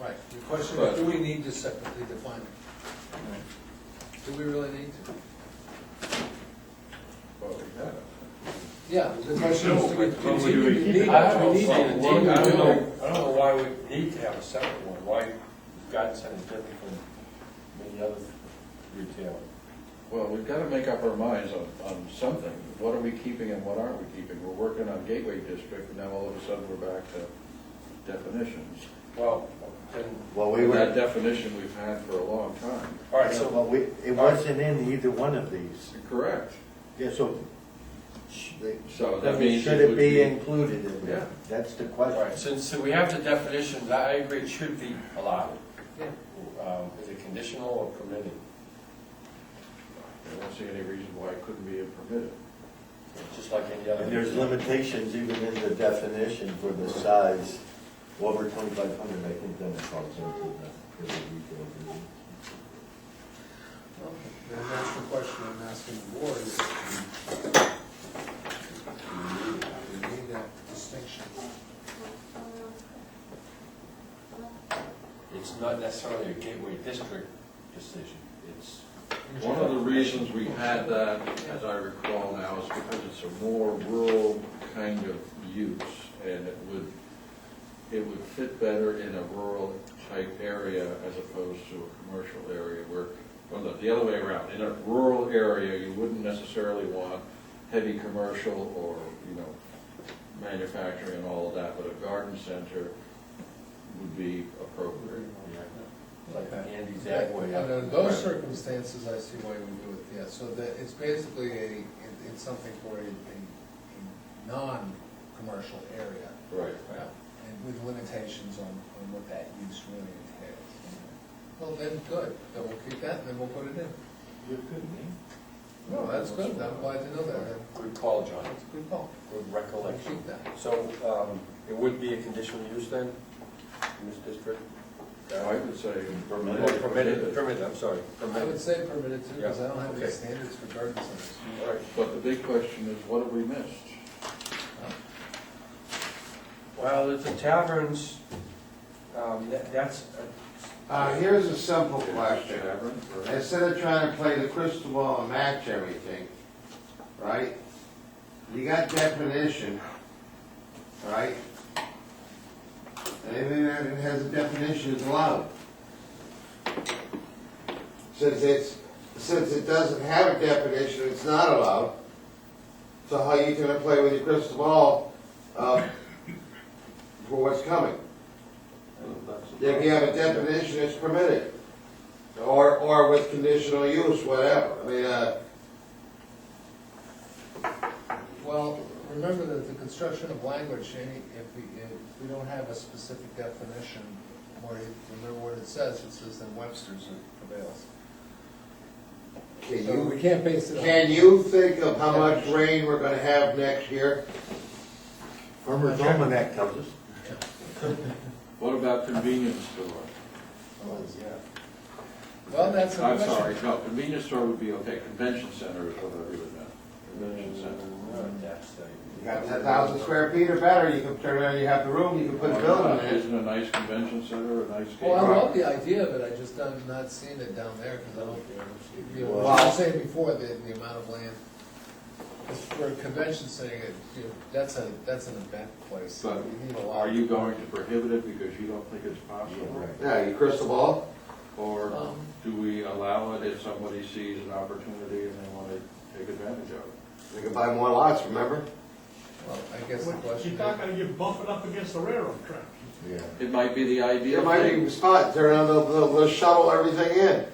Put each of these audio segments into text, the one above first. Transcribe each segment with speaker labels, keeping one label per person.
Speaker 1: Right, the question
Speaker 2: But-
Speaker 1: is, do we need to separately define it? Do we really need to?
Speaker 2: Well, we have.
Speaker 1: Yeah, the question is, do we
Speaker 2: No, but-
Speaker 1: continue to need it?
Speaker 3: I
Speaker 1: Do
Speaker 3: don't
Speaker 1: we
Speaker 3: know,
Speaker 1: need
Speaker 3: well,
Speaker 1: it?
Speaker 3: well,
Speaker 1: Do we
Speaker 3: I don't
Speaker 1: really?
Speaker 3: know, I don't know why we need to have a separate one, why God sent is different from many other retail.
Speaker 2: Well, we've got to make up our minds on, on something. What are we keeping and what aren't we keeping? We're working on Gateway District, and now all of a sudden we're back to definitions.
Speaker 3: Well, then,
Speaker 4: Well, we
Speaker 2: And That
Speaker 4: were,
Speaker 2: definition we've had for a long time.
Speaker 3: all right, so,
Speaker 4: well, we, it wasn't in either one of these.
Speaker 2: Correct.
Speaker 4: Yeah, so. sh- they-
Speaker 2: So that means it
Speaker 4: Should it
Speaker 2: would
Speaker 4: be
Speaker 2: be-
Speaker 4: included in
Speaker 2: Yeah.
Speaker 4: there? That's the
Speaker 3: all right,
Speaker 4: question.
Speaker 3: since, so we have the definitions, I agree, it should be allowed.
Speaker 1: Yeah.
Speaker 3: Um, Is it conditional or permitted?
Speaker 2: I don't see any reason why it couldn't be permitted.
Speaker 3: Just like any other.
Speaker 4: And there's
Speaker 3: retail.
Speaker 4: limitations even in the definition for the size, over twenty-five hundred, I think then it falls into the, the retail business.
Speaker 1: Okay, Then that's the question I'm asking the board, is do we need that distinction?
Speaker 3: It's not necessarily a gateway district decision, it's.
Speaker 2: One of the reasons we had that, as I recall now, is because it's a more rural kind of use, and it would, it would fit better in a rural type area as opposed to a commercial area where, well, no, the other way around, in a rural area, you wouldn't necessarily want heavy commercial or, you know, manufacturing and all of that, but a garden center would be appropriate.
Speaker 3: Like Andy's Agway. uh,
Speaker 1: Under those circumstances, I see why you would do it, yeah, so that, it's basically a, it- it's something for a, a, a non-commercial area.
Speaker 2: Right.
Speaker 1: And with limitations on, on what that use really entails. Well, then, good, then we'll keep that, and then we'll put it in. No, that's good, I'm glad to know that,
Speaker 3: Good call, John,
Speaker 1: that's a good call,
Speaker 3: good
Speaker 1: we'll
Speaker 3: recollection.
Speaker 1: keep that.
Speaker 3: So, um, it would be a conditional use then, in this district?
Speaker 2: I would say.
Speaker 3: Or
Speaker 4: Permitted.
Speaker 3: Permitted, permitted, I'm sorry,
Speaker 1: I would
Speaker 3: permitted.
Speaker 1: say permitted too, because I don't have any
Speaker 3: Yeah, okay.
Speaker 1: standards for garden centers.
Speaker 3: All right,
Speaker 2: But the big question is, what have we missed?
Speaker 3: well, if the taverns, um, that, that's, a-
Speaker 5: Uh, here's a simple question. Instead of trying to play the crystal ball and match everything, right? You got definition, right? Anything that has a definition is allowed. Since it's, since it doesn't have a definition, it's not allowed. So how you gonna play with your crystal ball, uh, for what's coming? If you have a definition, it's permitted. Or, or with conditional use, whatever, I mean, uh,
Speaker 1: Well, remember that the construction of language, Shani, if we, if we don't have a specific definition, or if- remember what it says, it says that Webster's prevails.
Speaker 5: can
Speaker 1: So we
Speaker 5: you,
Speaker 1: can't base it on.
Speaker 5: can you think of how much rain we're gonna have next year?
Speaker 4: Farmer's Almanac tells us.
Speaker 2: What about convenience store?
Speaker 1: Oh, Well, that's a
Speaker 2: I'm
Speaker 1: question.
Speaker 2: sorry, no, convenience store would be okay, convention center is what I really meant. Convention center.
Speaker 3: no, Oh, that's a.
Speaker 5: You got ten thousand square feet or better, you can turn around, you have the room, you can put a building in.
Speaker 2: Isn't a nice convention center a nice
Speaker 1: Well, I
Speaker 2: gateway?
Speaker 1: love the idea of it, I just don't, not seeing it down there, because I don't, you know,
Speaker 4: Wow.
Speaker 1: I was saying before, the, the amount of land. 'Cause For a convention setting, it, you know, that's a, that's an event place, so
Speaker 2: But
Speaker 1: you need a lot.
Speaker 2: Are you going to prohibit it because you don't think it's possible?
Speaker 5: Yeah, your crystal ball,
Speaker 2: Or
Speaker 1: Um,
Speaker 2: do we allow it if somebody sees an opportunity and they want to take advantage of it?
Speaker 5: you can buy more lots, remember?
Speaker 1: Well, I guess the
Speaker 6: Well,
Speaker 1: question
Speaker 6: You're
Speaker 1: is.
Speaker 6: not gonna get buffered up against the railroad tracks.
Speaker 4: Yeah.
Speaker 2: It might be the
Speaker 5: There
Speaker 2: ideal
Speaker 5: might be
Speaker 2: thing.
Speaker 5: a spot, turn around, they'll, they'll they'll shuttle everything in.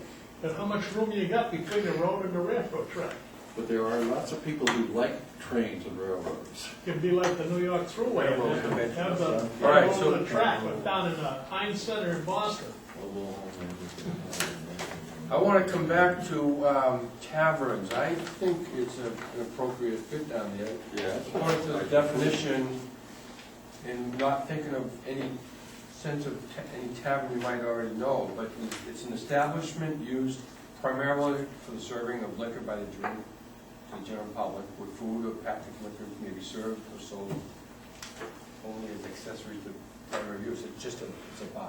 Speaker 6: And how much room you got between the road and the railroad track?
Speaker 2: But there are lots of people who like trains and railroads.
Speaker 6: It'd be like the New York Thruway,
Speaker 3: Railroad convention.
Speaker 6: have the
Speaker 3: All right, so-
Speaker 6: railroad and the track, but down in the Heinz Center in Boston.
Speaker 3: I want to come back to um, taverns. I think it's a- an appropriate fit down there.
Speaker 2: Yes.
Speaker 3: According to the definition, and not thinking of any sense of ta- any tavern you might already know, but it's an establishment used primarily for the serving of liquor by the general, to the general public, where food or packaged liquor may be served or sold only as accessories to primary use. It's just a, it's a bar.